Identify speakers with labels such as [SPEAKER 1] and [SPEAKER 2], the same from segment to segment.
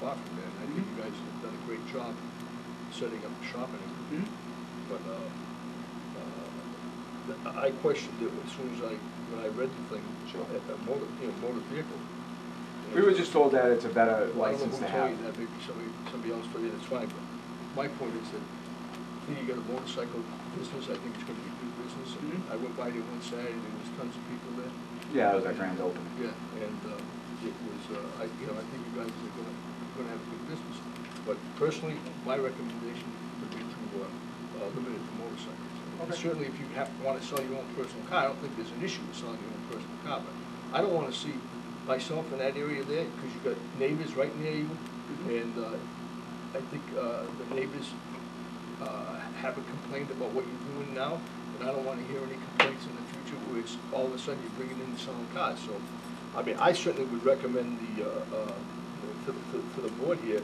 [SPEAKER 1] fuck, man, I think you guys have done a great job setting up the shop and everything.
[SPEAKER 2] Hmm?
[SPEAKER 1] But, uh, uh, th- I questioned it as soon as I, when I read the thing,
[SPEAKER 2] Sure.
[SPEAKER 1] at the motor, you know, motor vehicle.
[SPEAKER 2] We were just told that it's a better
[SPEAKER 1] I don't know
[SPEAKER 2] license
[SPEAKER 1] who
[SPEAKER 2] to
[SPEAKER 1] told
[SPEAKER 2] have.
[SPEAKER 1] you that, maybe somebody, somebody else told you, that's fine, but my point is that, here you got a motorcycle business, I think it's gonna be good business. And
[SPEAKER 2] Hmm?
[SPEAKER 3] Mhm.
[SPEAKER 1] I went by there one Saturday, there was tons of people there.
[SPEAKER 2] Yeah, it was our grand opening.
[SPEAKER 1] Yeah, and uh, it was, uh, I, you know, I think you guys are gonna, gonna have a good business. But personally, my recommendation would be to, uh, uh, limit it to motorcycles. And
[SPEAKER 3] Okay.
[SPEAKER 1] Certainly, if you have, wanna sell your own personal car, I don't think there's an issue with selling your own personal car, but I don't wanna see myself in that area there, because you've got neighbors right near you,
[SPEAKER 3] Mhm.
[SPEAKER 1] and, uh, I think, uh, the neighbors, uh, haven't complained about what you're doing now, and I don't wanna hear any complaints in the future where it's all of a sudden you're bringing in selling cars, so, I mean, I certainly would recommend the, uh, uh, to, to, to the board here,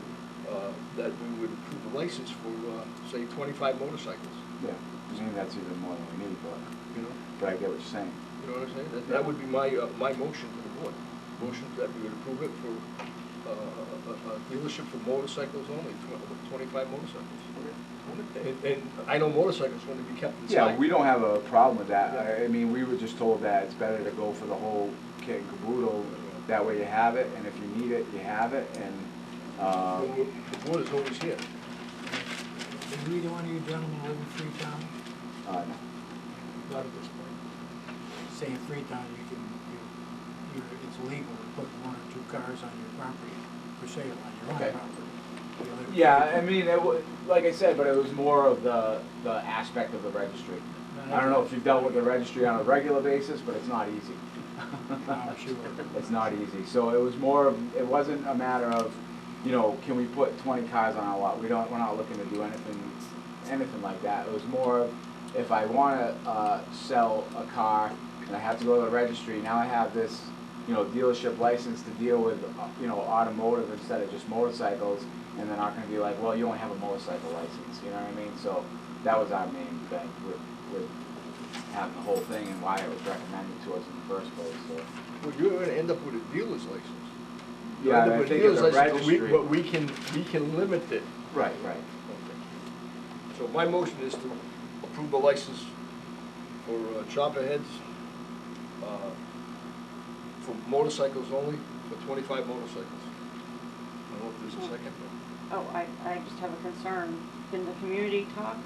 [SPEAKER 1] uh, that we would approve a license for, uh, say, twenty-five motorcycles,
[SPEAKER 2] Yeah, I mean, that's even more than we need, but,
[SPEAKER 1] you know?
[SPEAKER 2] but I get what you're saying.
[SPEAKER 1] You know what I'm saying? That, that would be my, uh, my motion to the board. Motion that we would approve it for, uh, a, a dealership for motorcycles only, tw- twenty-five motorcycles. And, and I know motorcycles want to be kept inside.
[SPEAKER 2] Yeah, we don't have a problem with that. I- I mean, we were just told that it's better to go for the whole kit and caboodle. That way you have it, and if you need it, you have it, and,
[SPEAKER 1] The
[SPEAKER 2] um,
[SPEAKER 1] wo- the board is always here.
[SPEAKER 4] Did either one of you gentlemen live in Freetown?
[SPEAKER 2] uh,
[SPEAKER 4] Not at this point. Say in Freetown, you can, you, you, it's legal to put one or two cars on your property for sale, on your
[SPEAKER 2] Okay.
[SPEAKER 4] own property. The other-
[SPEAKER 2] Yeah, I mean, it wa like I said, but it was more of the, the aspect of the registry. I don't know if you've dealt with the registry on a regular basis, but it's not easy.
[SPEAKER 4] I'm sure.
[SPEAKER 2] It's not easy. So it was more of, it wasn't a matter of, you know, can we put twenty cars on our lot? We don't, we're not looking to do anything, anything like that. It was more of, if I wanna, uh, sell a car and I have to go to the registry, now I have this, you know, dealership license to deal with, uh, you know, automotive instead of just motorcycles. And they're not gonna be like, well, you only have a motorcycle license, you know what I mean? So that was our main thing with, with having the whole thing and why it was recommended to us in the first place, so.
[SPEAKER 1] Well, you're gonna end up with a dealer's license. You'll
[SPEAKER 2] Yeah,
[SPEAKER 1] end
[SPEAKER 2] and
[SPEAKER 1] up
[SPEAKER 2] I
[SPEAKER 1] with a
[SPEAKER 2] think
[SPEAKER 1] dealer's
[SPEAKER 2] it's a
[SPEAKER 1] license, but we-
[SPEAKER 2] registry.
[SPEAKER 1] But we can, we can limit it.
[SPEAKER 2] Right, right.
[SPEAKER 1] So my motion is to approve the license for uh, chopper heads, uh, for motorcycles only, for twenty-five motorcycles. I don't know if there's a second.
[SPEAKER 5] Oh, I, I just have a concern. Can the community talk?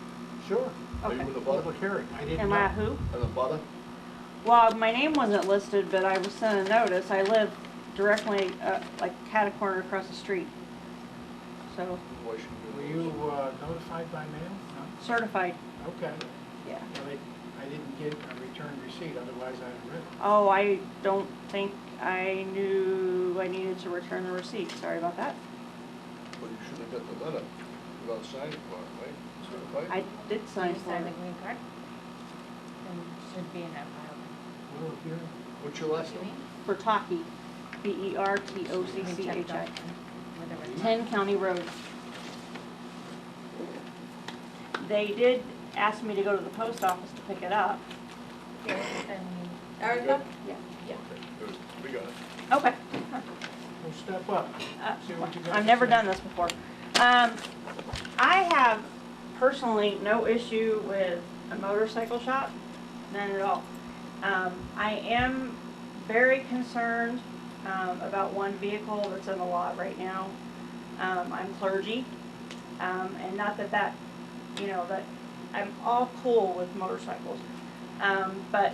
[SPEAKER 4] Sure.
[SPEAKER 1] Are you
[SPEAKER 5] Okay.
[SPEAKER 1] in the butter?
[SPEAKER 4] Public hearing, I didn't
[SPEAKER 5] Am
[SPEAKER 4] know.
[SPEAKER 5] I who?
[SPEAKER 1] In the butter?
[SPEAKER 5] Well, my name wasn't listed, but I was sent a notice. I live directly, uh, like cat a corner across the street. So
[SPEAKER 1] Why shouldn't
[SPEAKER 4] Were
[SPEAKER 1] we?
[SPEAKER 4] you uh, notified by mail?
[SPEAKER 5] certified,
[SPEAKER 4] No? Okay.
[SPEAKER 5] yeah.
[SPEAKER 4] Well, I- I didn't get a return receipt, otherwise I'd have written.
[SPEAKER 5] Oh, I don't think I knew I needed to return the receipt. Sorry about that.
[SPEAKER 1] Well, you should have got the letter without signing for it, right?
[SPEAKER 5] I
[SPEAKER 1] Certified?
[SPEAKER 5] did sign
[SPEAKER 6] Sign
[SPEAKER 5] for
[SPEAKER 6] the
[SPEAKER 5] it.
[SPEAKER 6] green card. And should be in that file.
[SPEAKER 4] Well, here,
[SPEAKER 1] What's your last name?
[SPEAKER 5] Bertocci, E B-E-R-T-O-C-C-H-I. Ten County Road. They did ask me to go to the post office to pick it up.
[SPEAKER 6] Erica?
[SPEAKER 5] Yeah.
[SPEAKER 6] Yeah.
[SPEAKER 1] Good, We got it.
[SPEAKER 5] Okay.
[SPEAKER 4] well, step up.
[SPEAKER 5] Uh,
[SPEAKER 4] See what you got
[SPEAKER 5] I've
[SPEAKER 4] to
[SPEAKER 5] never
[SPEAKER 4] say.
[SPEAKER 5] done this before. Um, I have personally no issue with a motorcycle shop, none at all. Um, I am very concerned, um, about one vehicle that's in the lot right now. Um, I'm clergy, um, and not that that, you know, that, I'm all cool with motorcycles. Um, but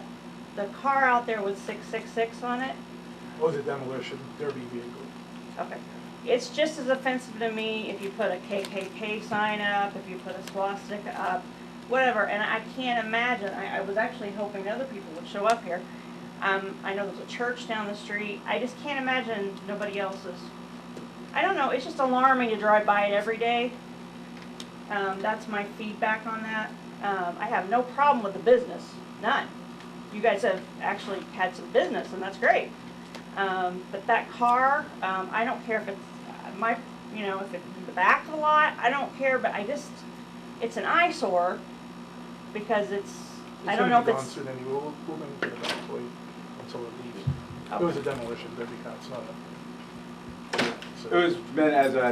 [SPEAKER 5] the car out there with six-six-six on it,
[SPEAKER 7] was a demolition derby vehicle.
[SPEAKER 5] Okay. It's just as offensive to me if you put a KKK sign up, if you put a swastika up, whatever, and I can't imagine, I, I was actually hoping other people would show up here. Um, I know there's a church down the street, I just can't imagine nobody else's. I don't know, it's just alarming to drive by it every day. Um, that's my feedback on that. Um, I have no problem with the business, none. You guys have actually had some business, and that's great. Um, but that car, um, I don't care if it's uh, my, you know, if it's in the back of the lot, I don't care, but I just, it's an eyesore because it's, I don't know if
[SPEAKER 7] It's
[SPEAKER 5] it's,
[SPEAKER 7] gonna be gone soon anyway, we'll, we're gonna put it back away until it leaves. It was a demolition derby car, it's not a. so-
[SPEAKER 2] It was meant as a